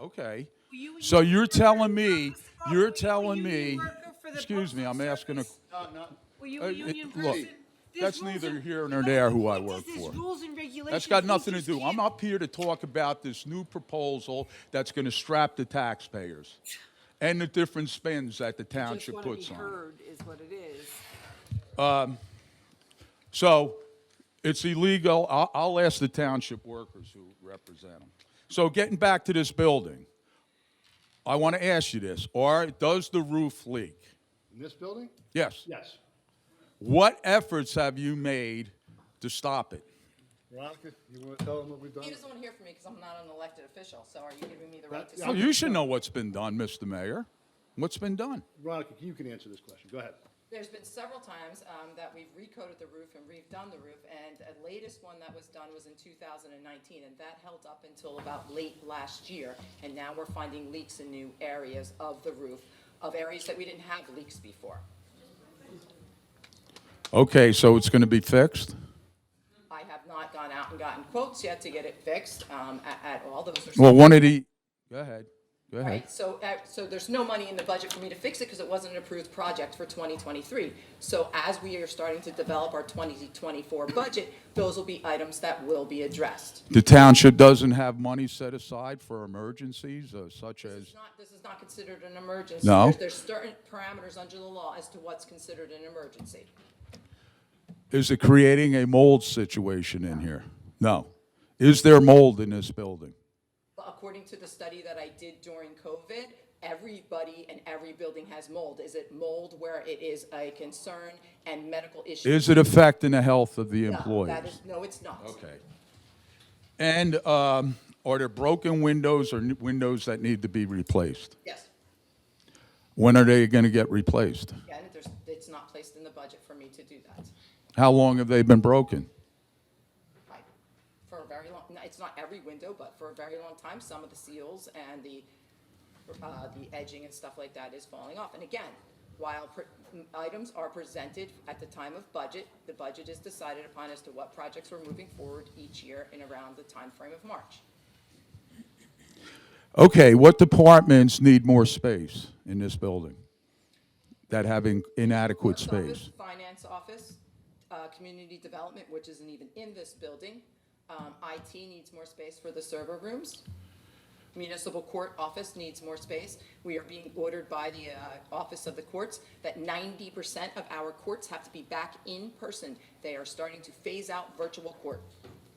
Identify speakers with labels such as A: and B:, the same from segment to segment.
A: Okay.
B: You- you-
A: So you're telling me,
B: Scott, were you
A: you're
B: a
A: telling
B: union
A: me,
B: worker for the
A: excuse me,
B: postal
A: I'm asking a,
B: service?
C: No, no,
B: Were you
A: uh,
B: a
A: it-
B: union
A: look,
B: person? There's
A: that's
B: rules
A: neither
B: and-
A: here
B: you
A: nor
B: know,
A: there who I
B: this
A: work
B: is
A: for.
B: rules and regulations.
A: that's got
B: We
A: nothing to
B: just
A: do. I'm
B: can't-
A: up here to talk about this new proposal that's going to strap the taxpayers and the different spends that the
D: Just
A: township
D: want to be
A: puts on it.
D: heard is what it is.
A: So it's illegal. I'll, I'll ask the township workers who represent them. So getting back to this building, I want to ask you this, or does the roof leak?
C: in this building?
A: Yes.
C: Yes.
A: What efforts have you made to stop it?
C: Veronica, you want to tell them what we've done?
E: You just don't want to hear from me because I'm not an elected official, so are you giving me the right to
C: That-
E: speak?
A: Oh, you should know what's been done, Mr. Mayor. What's been done?
C: Veronica, you can answer this question. Go ahead.
E: There's been several times um, that we've recoded the roof and redone the roof, and a latest one that was done was in 2019, and that held up until about late last year. And now we're finding leaks in new areas of the roof, of areas that we didn't have leaks before.
A: Okay, so it's going to be fixed?
E: I have not gone out and gotten quotes yet to get it fixed um, a- at all. Those are.
A: Well, one of the, go ahead, go ahead.
E: Right, so, uh, so there's no money in the budget for me to fix it because it wasn't an approved project for 2023. So as we are starting to develop our 2024 budget, those will be items that will be addressed.
A: The township doesn't have money set aside for emergencies uh, such as,
E: It's not, this is not considered an emergency.
A: No.
E: There's- There's certain parameters under the law as to what's considered an emergency.
A: is it creating a mold situation in here? No. Is there mold in this building?
E: But according to the study that I did during COVID, everybody and every building has mold. Is it mold where it is a concern and medical issue?
A: Is it affecting the health of the
E: No,
A: employees?
E: that is- No, it's not.
A: Okay. And um, are there broken windows or n- windows that need to be replaced?
E: Yes.
A: When are they going to get replaced?
E: Again, there's, it's not placed in the budget for me to do that.
A: How long have they been broken?
E: I- For a very long, no, it's not every window, but for a very long time, some of the seals and the, uh, the edging and stuff like that is falling off. And again, while pre- m- items are presented at the time of budget, the budget is decided upon as to what projects we're moving forward each year in around the time frame of March.
A: Okay, what departments need more space in this building that have in- inadequate
E: Clerk's office,
A: space?
E: Finance office, uh, community development, which isn't even in this building. Um, IT needs more space for the server rooms. Municipal court office needs more space. We are being ordered by the uh, Office of the Courts that ninety percent of our courts have to be back in person. They are starting to phase out virtual court.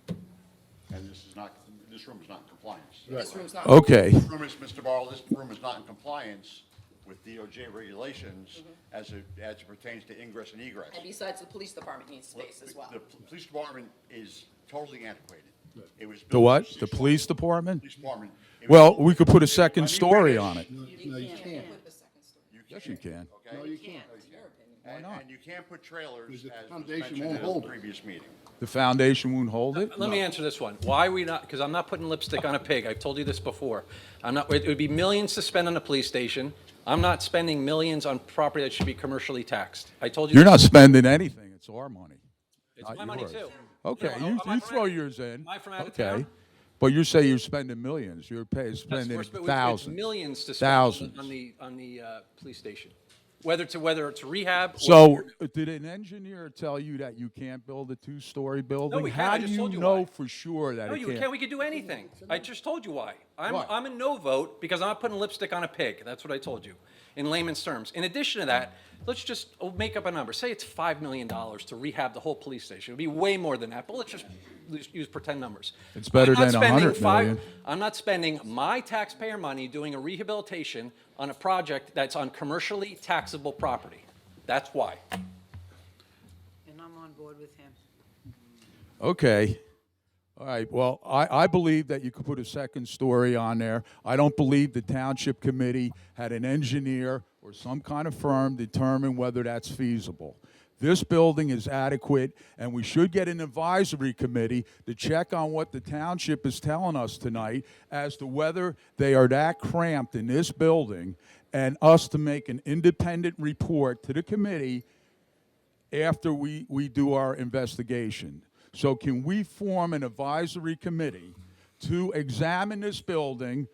F: And this is not, this room is not in compliance.
E: This room's not.
A: Okay,
F: This room is, Mr. Barlow, this room is not in compliance with DOJ regulations
E: Mm-hmm.
F: as it, as it pertains to ingress and egress.
E: And besides, the police department needs space as well.
F: The pl- police department is totally antiquated. It was.
A: the what?
F: built-
A: The police department?
F: Police department. It was-
A: Well, we could put a second story on it.
C: No, you can't.
E: Put the second story.
A: Yes, you can.
F: Okay?
C: No, you can't.
F: And, and you can't put trailers
C: Because the
F: as was
C: foundation
F: mentioned
C: won't
F: in the
C: hold it.
F: previous meeting.
A: The foundation won't hold it?
G: Let me answer this one. Why are we not, because I'm not putting lipstick on a pig. I've told you this before. I'm not, it would be millions to spend on a police station. I'm not spending millions on property that should be commercially taxed. I told you.
A: You're not spending anything, it's our money.
G: It's
A: not
G: my money
A: yours.
G: too.
A: Okay,
G: You know,
A: you,
G: am I
A: you
G: from
A: throw
G: out-
A: yours in.
G: Am I from out of
A: Okay.
G: town?
A: But you say you're spending millions, you're pay,
G: That's
A: spending
G: worse, but it's- it's
A: thousands.
G: Millions to spend on-
A: Thousands.
G: on the, on the, uh, police station. Whether to, whether it's rehab. or-
A: So, did an engineer tell you that you can't build a two-story building?
G: we can't.
A: How
G: I
A: do
G: just
A: you
G: told you
A: know
G: why.
A: for sure that
G: No,
A: it
G: you
A: can't?
G: can't, we could do anything. I just told you why. I'm,
A: Why?
G: I'm a no vote because I'm not putting lipstick on a pig. That's what I told you, in layman's terms. In addition to that, let's just oh, make up a number. Say it's $5 million to rehab the whole police station. It'd be way more than that, but let's just lose- use pretend numbers.
A: It's better
G: I'm not
A: than
G: spending
A: 100
G: five-
A: million.
G: I'm not spending my taxpayer money doing a rehabilitation on a project that's on commercially taxable property. That's why.
D: And I'm on board with him.
A: Okay. All right, well, I, I believe that you could put a second story on there. I don't believe the township committee had an engineer or some kind of firm determine whether that's feasible. This building is adequate, and we should get an advisory committee to check on what the township is telling us tonight as to whether they are that cramped in this building, and us to make an independent report to the committee after we, we do our investigation. So can we form an advisory committee to examine this building